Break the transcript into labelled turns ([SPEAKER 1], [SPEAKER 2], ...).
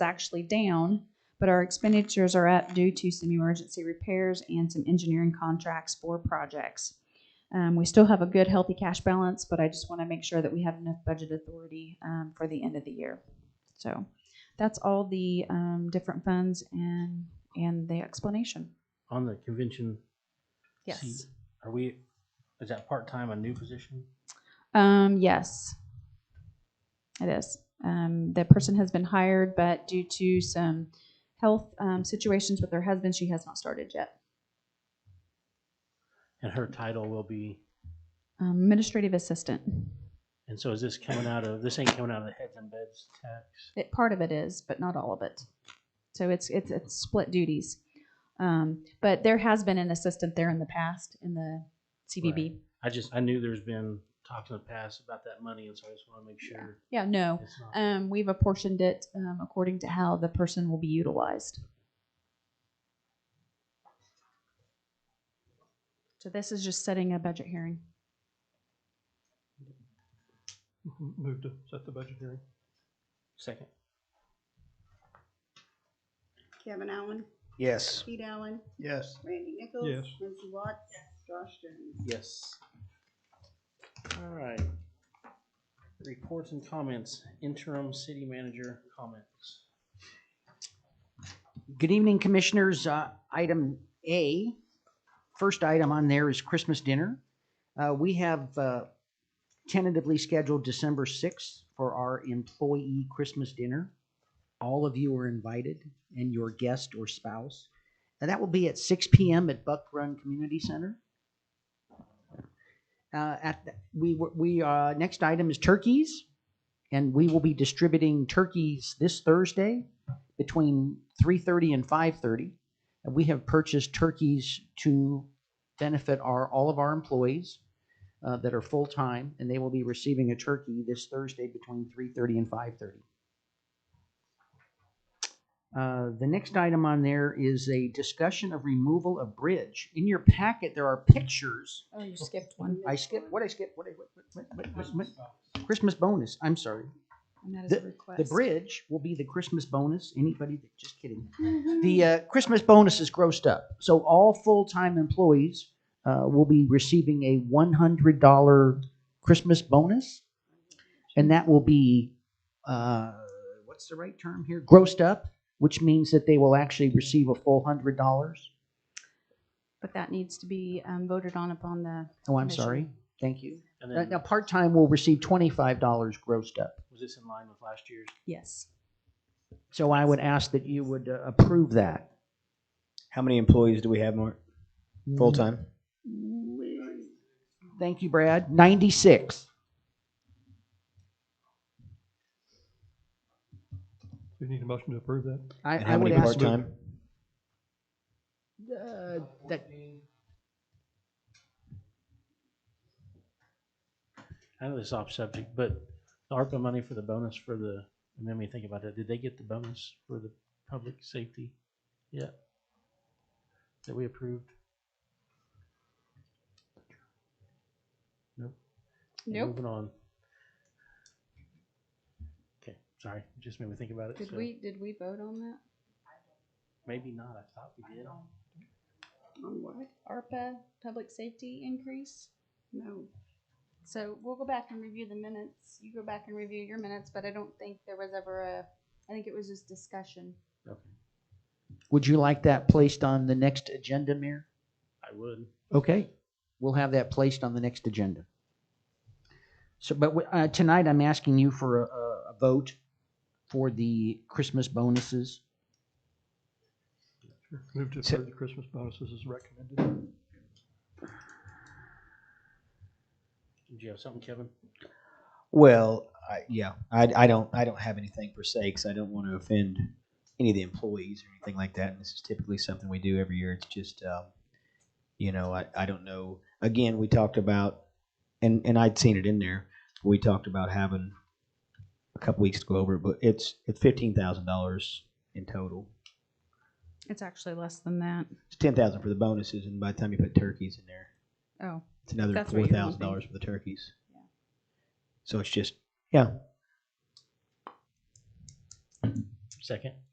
[SPEAKER 1] It's actually down, but our expenditures are up due to some emergency repairs and some engineering contracts for projects. Um, we still have a good, healthy cash balance, but I just want to make sure that we have enough budget authority, um, for the end of the year. So that's all the, um, different funds and, and the explanation.
[SPEAKER 2] On the convention,
[SPEAKER 1] Yes.
[SPEAKER 2] are we, is that part-time a new position?
[SPEAKER 1] Um, yes. It is. Um, the person has been hired, but due to some health, um, situations with her husband, she has not started yet.
[SPEAKER 2] And her title will be,
[SPEAKER 1] Um, administrative assistant.
[SPEAKER 2] and so is this coming out of, this ain't coming out of the heads and beds tax?
[SPEAKER 1] It, part of it is, but not all of it. So it's, it's, it's split duties. Um, but there has been an assistant there in the past in the CVB.
[SPEAKER 2] I just, I knew there's been talks in the past about that money, and so I just want to make sure
[SPEAKER 1] Yeah, no.
[SPEAKER 2] it's not.
[SPEAKER 1] Um, we've apportioned it, um, according to how the person will be utilized. So this is just setting a budget hearing. Um,
[SPEAKER 3] Move to set the budget hearing.
[SPEAKER 2] Second.
[SPEAKER 4] Kevin Allen,
[SPEAKER 2] Yes.
[SPEAKER 4] Pete Allen,
[SPEAKER 3] Yes.
[SPEAKER 4] Randy Nichols.
[SPEAKER 3] Yes.
[SPEAKER 4] Lindsey Watts. Josh Jones.
[SPEAKER 2] Yes. All right. Reports and comments, interim city manager comments.
[SPEAKER 5] Good evening, Commissioners. Uh, Item A, first item on there is Christmas dinner. Uh, We have uh, tentatively scheduled December 6th for our employee Christmas dinner. All of you are invited and your guest or spouse. And that will be at 6 PM at Buck Run Community Center. Uh, At, the- we, were- we, uh, next item is turkeys. And we will be distributing turkeys this Thursday between 3:30 and 5:30. And we have purchased turkeys to benefit our, all of our employees uh, that are full-time, and they will be receiving a turkey this Thursday between 3:30 and 5:30. Uh, The next item on there is a discussion of removal of bridge. In your packet, there are pictures.
[SPEAKER 1] Oh, you skipped one.
[SPEAKER 5] I skipped, what I skipped, what I, what, what, what- what, what- Christmas bonus, I'm sorry.
[SPEAKER 1] And that is a request.
[SPEAKER 5] The bridge will be the Christmas bonus. Anybody that, just kidding.
[SPEAKER 1] Mm-hmm.
[SPEAKER 5] The uh, Christmas bonus is grossed up. So all full-time employees uh, will be receiving a $100 Christmas bonus. And that will be, uh, what's the right term here? Grossed up, which means that they will actually receive a full $100.
[SPEAKER 1] But that needs to be, um, voted on upon the,
[SPEAKER 5] Oh, I'm
[SPEAKER 1] Commission.
[SPEAKER 5] sorry. Thank you.
[SPEAKER 2] And
[SPEAKER 5] Now,
[SPEAKER 2] then,
[SPEAKER 5] now part-time will receive $25 grossed up.
[SPEAKER 2] was this in line with last year's?
[SPEAKER 1] yes.
[SPEAKER 5] So I would ask that you would uh, approve that.
[SPEAKER 6] How many employees do we have, Mark? Full time?
[SPEAKER 5] Mm, Thank you, Brad. 96.
[SPEAKER 3] Do we need a motion to approve that?
[SPEAKER 5] I,
[SPEAKER 6] And
[SPEAKER 5] I
[SPEAKER 6] how
[SPEAKER 5] would
[SPEAKER 6] many
[SPEAKER 5] ask.
[SPEAKER 6] part time?
[SPEAKER 5] uh, that-
[SPEAKER 2] I know this is off subject, but the ARPA money for the bonus for the, it made me think about that. Did they get the bonus for the public safety? Yeah. That we approved? Nope.
[SPEAKER 1] Nope.
[SPEAKER 5] Mm-hmm.
[SPEAKER 2] Moving on. Okay, sorry, it just made me think about it. so
[SPEAKER 1] did we vote on that?
[SPEAKER 2] Maybe not, I thought we did.
[SPEAKER 4] On what?
[SPEAKER 1] ARPA, public safety increase?
[SPEAKER 4] No.
[SPEAKER 7] So we'll go back and review the minutes. You go back and review your minutes, but I don't think there was ever a, I think it was just discussion.
[SPEAKER 2] Okay,
[SPEAKER 5] Would you like that placed on the next agenda, Mayor?
[SPEAKER 2] I would.
[SPEAKER 5] Okay, we'll have that placed on the next agenda. So, but we- uh, tonight I'm asking you for a- a, a vote for the Christmas bonuses.
[SPEAKER 3] Move to
[SPEAKER 6] So-
[SPEAKER 3] approve the Christmas bonuses as recommended.
[SPEAKER 2] Did you have something, Kevin?
[SPEAKER 6] Well, I, yeah, I, I don't I don't have anything per se because I don't want to offend any of the employees or anything like that. And this is typically something we do every year. It's just, um, you know, I, I don't know. Again, we talked about, and and I'd seen it in there. We talked about having a couple weeks to go over, it, but it's it's fifteen thousand dollars in total.
[SPEAKER 1] It's actually less than that.
[SPEAKER 6] It's ten thousand for the bonuses, and by the time you put turkeys in there,
[SPEAKER 1] Oh,
[SPEAKER 6] It's another
[SPEAKER 1] That's
[SPEAKER 6] four
[SPEAKER 1] what you're
[SPEAKER 6] thousand
[SPEAKER 1] hoping.
[SPEAKER 6] dollars for the turkeys.
[SPEAKER 1] Yeah.
[SPEAKER 6] So it's just yeah.
[SPEAKER 2] Second.